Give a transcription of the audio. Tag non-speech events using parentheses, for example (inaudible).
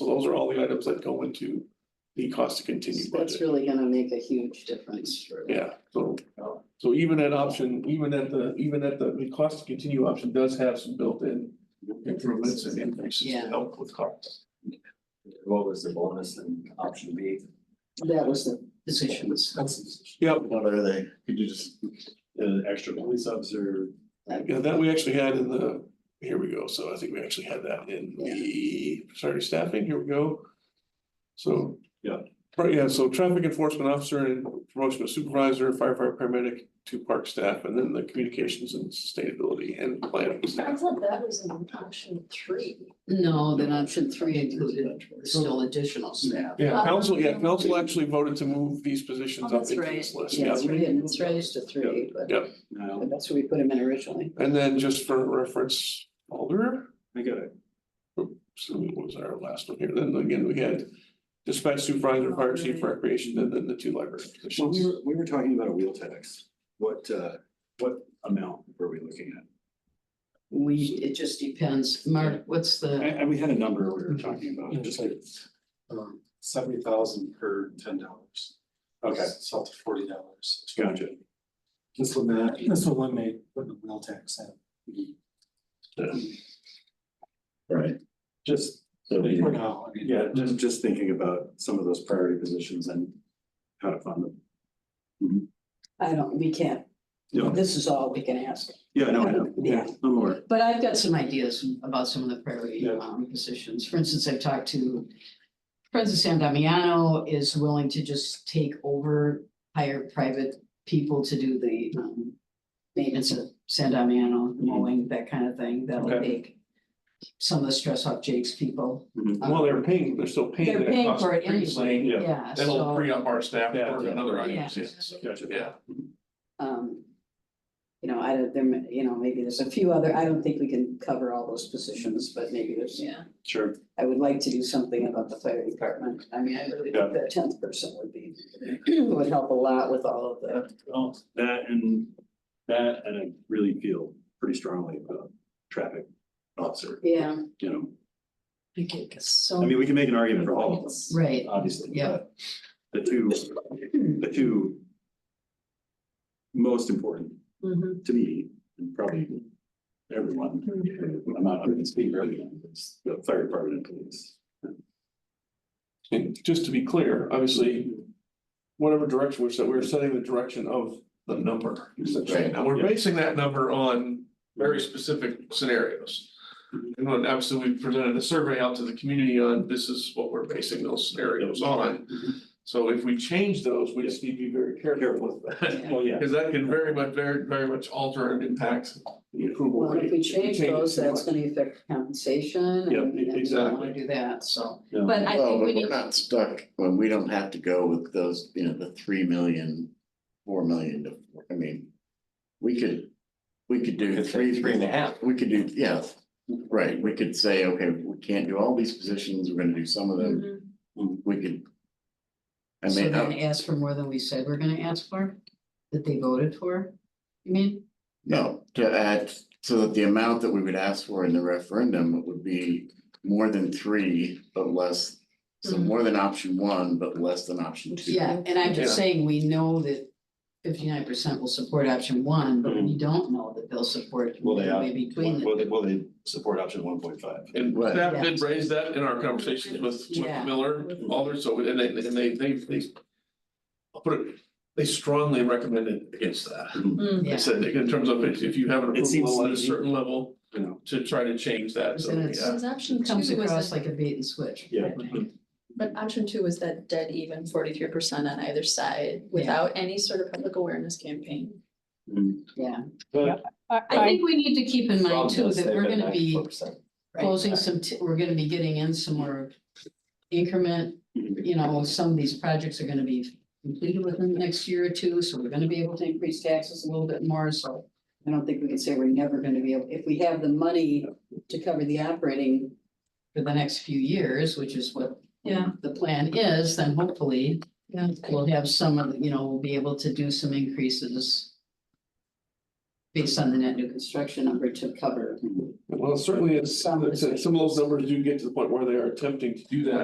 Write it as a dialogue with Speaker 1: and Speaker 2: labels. Speaker 1: So those are all the items that go into the cost to continue
Speaker 2: That's
Speaker 1: budget.
Speaker 2: really gonna make a huge difference.
Speaker 1: Yeah, so, so even at option, even at the, even at the, the cost to continue option does have some built-in improvements and increases to
Speaker 2: Yeah.
Speaker 1: help with costs.
Speaker 3: What was the bonus in option B?
Speaker 2: That was the positions.
Speaker 1: Yep,
Speaker 3: What are they? Could you just, uh, an extra police officer?
Speaker 1: yeah, that we actually had in the, here we go, so I think we actually had that in the, sorry, staffing, here we go. So.
Speaker 3: Yeah.
Speaker 1: Right, yeah, so traffic enforcement officer and promotion of supervisor, firefighter, paramedic, two park staff, and then the communications and sustainability and planning.
Speaker 4: I thought that was in option three.
Speaker 2: No, then option three included still additional staff.
Speaker 1: Yeah, council, yeah, council actually voted to move these positions
Speaker 4: Oh,
Speaker 1: up
Speaker 4: that's
Speaker 1: into
Speaker 4: right.
Speaker 1: this list, yeah.
Speaker 2: Yes, we didn't, it's raised to three, but
Speaker 1: Yep,
Speaker 3: No,
Speaker 2: but that's where we put them in originally.
Speaker 1: and then just for reference, Alder,
Speaker 3: I got it.
Speaker 1: so what was our last one here, then again, we had dispatch supervisor, fire chief, recreation, and then the two library
Speaker 3: Well, we
Speaker 1: positions.
Speaker 3: were, we were talking about a wheel tax. What, uh, what amount were we looking at?
Speaker 2: We, it just depends. Mark, what's the,
Speaker 3: And, and we had a number we were talking about, just like.
Speaker 5: um, seventy thousand per ten dollars.
Speaker 3: Okay.
Speaker 5: It's up to forty dollars.
Speaker 3: Gotcha.
Speaker 5: This will not, this will eliminate putting the wheel tax in.
Speaker 3: Right. Just, so we-
Speaker 5: For now, I mean.
Speaker 3: yeah, just, just thinking about some of those priority positions and how to fund them.
Speaker 2: I don't, we can't.
Speaker 3: Yeah.
Speaker 2: This is all we can ask.
Speaker 3: Yeah, no, I know.
Speaker 2: Yeah.
Speaker 3: I'm aware.
Speaker 2: But I've got some ideas about some of the priority
Speaker 3: Yeah.
Speaker 2: um, positions. For instance, I've talked to Francis Sandamiano is willing to just take over, hire private people to do the um, maintenance of Sandamiano, mowing, that kind of thing. That'll
Speaker 1: Mm-hmm. Okay.
Speaker 2: take some of the stress off Jake's people.
Speaker 3: Mhm.
Speaker 1: Well, they're paying, they're still paying.
Speaker 2: They're
Speaker 1: that
Speaker 2: paying
Speaker 1: cost
Speaker 2: for it
Speaker 1: increase.
Speaker 2: anyway,
Speaker 3: yeah.
Speaker 2: yeah,
Speaker 1: That'll
Speaker 2: so,
Speaker 1: free up our staff for
Speaker 3: Yeah.
Speaker 1: another
Speaker 2: Yeah.
Speaker 1: item, yes,
Speaker 3: Gotcha.
Speaker 1: yeah.
Speaker 2: um, you know, I don't, there, may- you know, maybe there's a few other, I don't think we can cover all those positions, but maybe there's
Speaker 4: Yeah.
Speaker 3: Sure.
Speaker 2: I would like to do something about the fire department. I mean, I really
Speaker 3: Yeah.
Speaker 2: think that tenth person would be, (clears throat) would help a lot with all of the.
Speaker 3: Well, that and, that, and I really feel pretty strongly about traffic officer,
Speaker 2: Yeah.
Speaker 3: you know.
Speaker 4: I think it's so.
Speaker 3: I mean, we can make an argument for all of them,
Speaker 2: Right.
Speaker 3: obviously,
Speaker 2: Yeah.
Speaker 3: but the two, the two most important
Speaker 2: (laughs)
Speaker 4: Mhm.
Speaker 3: to me, and probably everyone, I'm not, I'm gonna speak for everyone, it's the fire department and police.
Speaker 1: And just to be clear, obviously, whatever direction we're set, we're setting the direction of the number. essentially.
Speaker 3: Right.
Speaker 1: And we're
Speaker 3: Yeah.
Speaker 1: basing that number on very specific scenarios. And when obviously we presented a survey out to the community on this is what we're basing those scenarios on. So if we change those, we just need to be very careful with that.
Speaker 2: Yeah.
Speaker 3: Well, yeah,
Speaker 1: Because that can very much, very, very much alter and impact the approval
Speaker 2: Well,
Speaker 1: rate.
Speaker 2: if we
Speaker 1: it
Speaker 2: change
Speaker 1: too
Speaker 2: those, that's
Speaker 1: much.
Speaker 2: gonna affect compensation. and
Speaker 1: Yeah,
Speaker 2: then we don't
Speaker 1: exactly.
Speaker 2: Wanna do that, so.
Speaker 3: no,
Speaker 4: But I
Speaker 6: Well,
Speaker 4: think we
Speaker 6: but
Speaker 4: need,
Speaker 6: we're not stuck, well, we don't have to go with those, you know, the three million, four million to, I mean. We could, we could do three, three and a half, we could do, yeah, right, we could say, okay, we can't do all these positions, we're gonna do some of them,
Speaker 4: Mhm.
Speaker 6: we could. I
Speaker 2: So
Speaker 6: mean,
Speaker 2: then
Speaker 6: uh,
Speaker 2: ask for more than we said we're gonna ask for, that they voted for, you mean?
Speaker 6: no, to add, so that the amount that we would ask for in the referendum would be more than three, but less. So
Speaker 4: Mm-hmm.
Speaker 2: Mhm.
Speaker 6: more than option one, but less than option two.
Speaker 2: Yeah, and I'm just saying, we know that fifty-nine percent will support option one, but we don't know that they'll support
Speaker 3: Will they
Speaker 2: midway between
Speaker 3: will
Speaker 2: them.
Speaker 3: they, will they support option one point five?
Speaker 1: And
Speaker 6: Right.
Speaker 1: staff did raise that in our conversations with
Speaker 2: Yeah. Mm-hmm.
Speaker 1: with Miller, Alder, so and they and they they they. I'll put it, they strongly recommended against that.
Speaker 4: Mm.
Speaker 2: Yeah.
Speaker 1: They said that in terms of if if you have an
Speaker 3: It seems
Speaker 1: approval at a
Speaker 3: sneaky.
Speaker 1: certain level,
Speaker 3: You know,
Speaker 1: to try to change that, so
Speaker 2: Then
Speaker 1: yeah.
Speaker 2: it's-
Speaker 4: Because option two
Speaker 2: Comes across
Speaker 4: was,
Speaker 2: like a bait and switch.
Speaker 3: Yeah.
Speaker 2: I think.
Speaker 4: but option two was that dead even forty-three percent on either side without any sort of public awareness campaign.
Speaker 3: mm,
Speaker 2: Yeah,
Speaker 3: But.
Speaker 2: I think we need to keep in mind too
Speaker 3: Rob does
Speaker 2: that
Speaker 3: say
Speaker 2: we're
Speaker 3: that
Speaker 2: gonna be
Speaker 3: 94%.
Speaker 4: Right.
Speaker 2: closing some, t- we're gonna be getting in some more increment. You know, some of these projects are gonna be completed within the next year or two, so we're gonna be able to increase taxes a little bit more, so. I don't think we can say we're never gonna be able, if we have the money to cover the operating for the next few years, which is what
Speaker 4: Yeah.
Speaker 2: the plan is, then hopefully
Speaker 4: Yeah.
Speaker 2: we'll have some of, the- you know, we'll be able to do some increases. based on the net new construction number to cover
Speaker 1: Well, certainly it's,
Speaker 2: Some-
Speaker 1: it's- some of those numbers do get to the point where they are attempting to do that.